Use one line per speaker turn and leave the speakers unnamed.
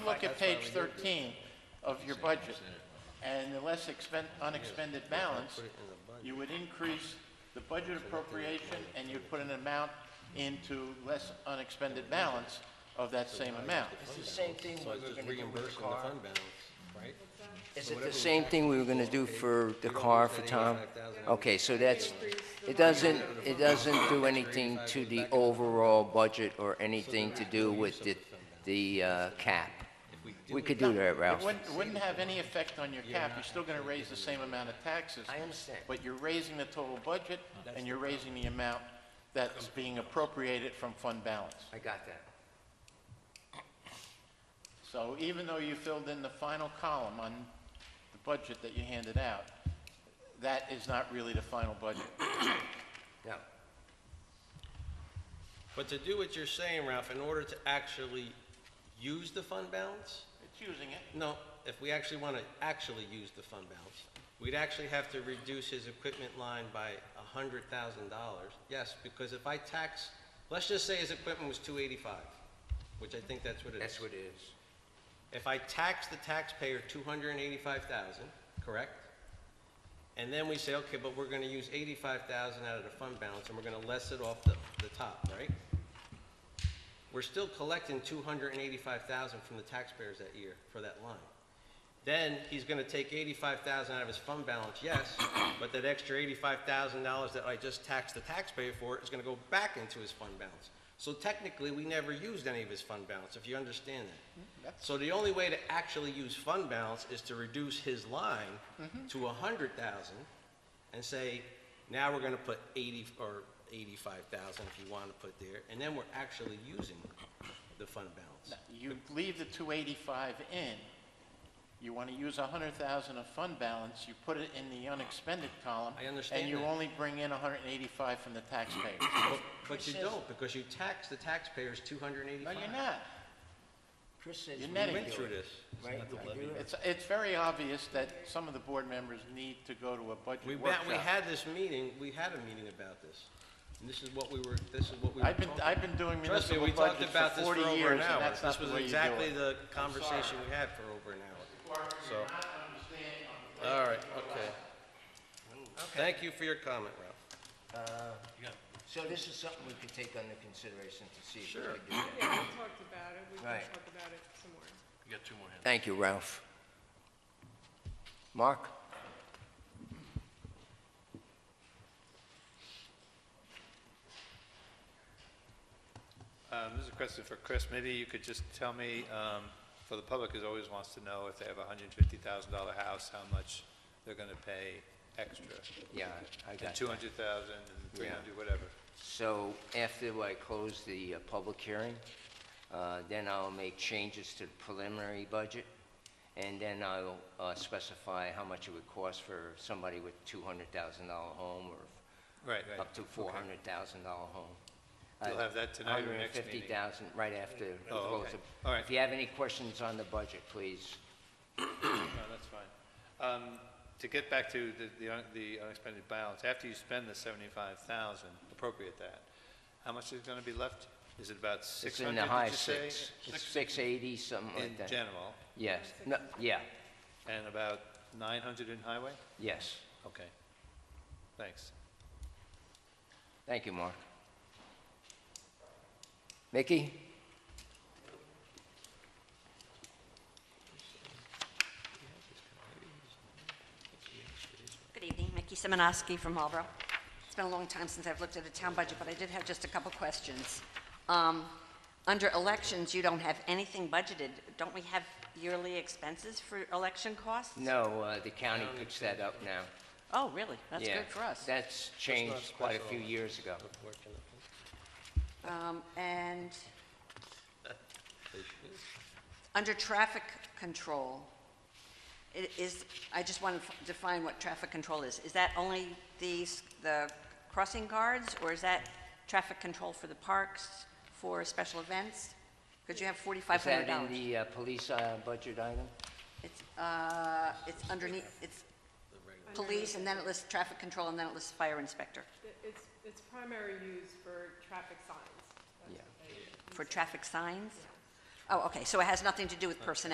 look at page 13 of your budget, and the less expen- unexpended balance, you would increase the budget appropriation, and you'd put an amount into less unexpended balance of that same amount.
It's the same thing we were gonna do with the
reimbursing the
car.
fund balance, right?
Is it the same thing we were gonna do for the car for Tom?
$85,000.
Okay, so that's, it doesn't, it doesn't do anything to the overall budget or anything to do with the, the uh, cap. We could do that,
It
Ralph.
wouldn't, it wouldn't have any effect on your cap, you're still gonna raise the same amount of taxes.
I understand.
But you're raising the total budget, and you're raising the amount that's being appropriated from fund balance.
I got that.
So even though you filled in the final column on the budget that you handed out, that is not really the final budget.
No.
But to do what you're saying, Ralph, in order to actually use the fund balance,
It's using it.
no, if we actually want to actually use the fund balance, we'd actually have to reduce his equipment line by a hundred thousand dollars. Yes, because if I tax, let's just say his equipment was two eighty-five, which I think that's what it is.
That's what it is.
If I tax the taxpayer two hundred and eighty-five thousand, correct? And then we say, okay, but we're gonna use eighty-five thousand out of the fund balance, and we're gonna less it off the, the top, right? We're still collecting two hundred and eighty-five thousand from the taxpayers that year for that line. Then he's gonna take eighty-five thousand out of his fund balance, yes, but that extra eighty-five thousand dollars that I just taxed the taxpayer for is gonna go back into his fund balance. So technically, we never used any of his fund balance, if you understand that. So the only way to actually use fund balance is to reduce his line to a hundred thousand and say, now we're gonna put eighty, or eighty-five thousand if you wanna put there, and then we're actually using the fund balance.
You leave the 285 in, you want to use 100,000 of fund balance, you put it in the unexpended column.
I understand
And you
that.
only bring in 185 from the taxpayer.
But- But you don't, because you tax the taxpayers two hundred and
No,
eighty-five.
you're not.
Chris says
You're
we
netting
We
can
went
it.
do
through
it.
this.
Right, we can do it.
It's, it's very obvious that some of the board members need to go to a
We,
budget
ba- we
workshop.
had this meeting, we had a meeting about this, and this is what we were, this is what we were
I've been,
talking
I've been doing
Trust me,
municipal
we talked
budgets for
about this for
40
over
years,
an
and
hour.
that's not
This
the
was
way you do
exactly
it.
the conversation we had for over an hour. All right, okay. Thank you for your comment, Ralph.
So this is something we could take under consideration to see if we
Sure.
could do that.
Yeah, we talked about it, we can
Right.
talk about it some more.
Thank you, Ralph. Mark?
Um, This is a question for Chris. Maybe you could just tell me, um, for the public who always wants to know if they have a hundred and fifty thousand dollar house, how much they're gonna pay extra?
Yeah, I got
And
that.
two hundred thousand, and three hundred, whatever.
So after I close the uh, public hearing, uh, then I'll make changes to the preliminary budget, and then I'll uh, specify how much it would cost for somebody with $200,000 home or
Right, right.
up to $400,000 home. Uh,
You'll have that tonight or next meeting?
$150,000, right after. we
Oh,
close
okay.
the-
All right.
If you have any questions on the budget, please.
No, that's fine. Um, To get back to the- the un- the unexpended balance, after you spend the seventy-five thousand, appropriate that, how much is gonna be left? Is it about six
It's in
hundred,
the high
did you say?
six. It's 680, something like
In
that.
general,
Yes, no, yeah,
and about nine hundred in highway?
yes.
Okay. Thanks.
Thank you, Mark. Mickey?
Good evening, Mickey Simonoski from Marlboro. It's been a long time since I've looked at a town budget, but I did have just a couple questions. Um, Under elections, you don't have anything budgeted. Don't we have yearly expenses for election costs?
No, uh, the county puts that up now.
Oh, really? That's
Yeah,
good for us.
That's changed quite a few years ago.
Um, And under traffic control, i- is, I just want to define what traffic control is. Is that only these, the crossing guards, or is that traffic control for the parks, for special events? Because you have
Is that in
$4,500.
the uh, police uh, budget item?
It's, uh, it's underneath, it's police, and then it lists traffic control, and then it lists fire inspector,
It- It's, it's primary use for traffic signs. That's
Yeah.
what they-
for traffic signs? Oh, okay, so it has nothing to do with personnel?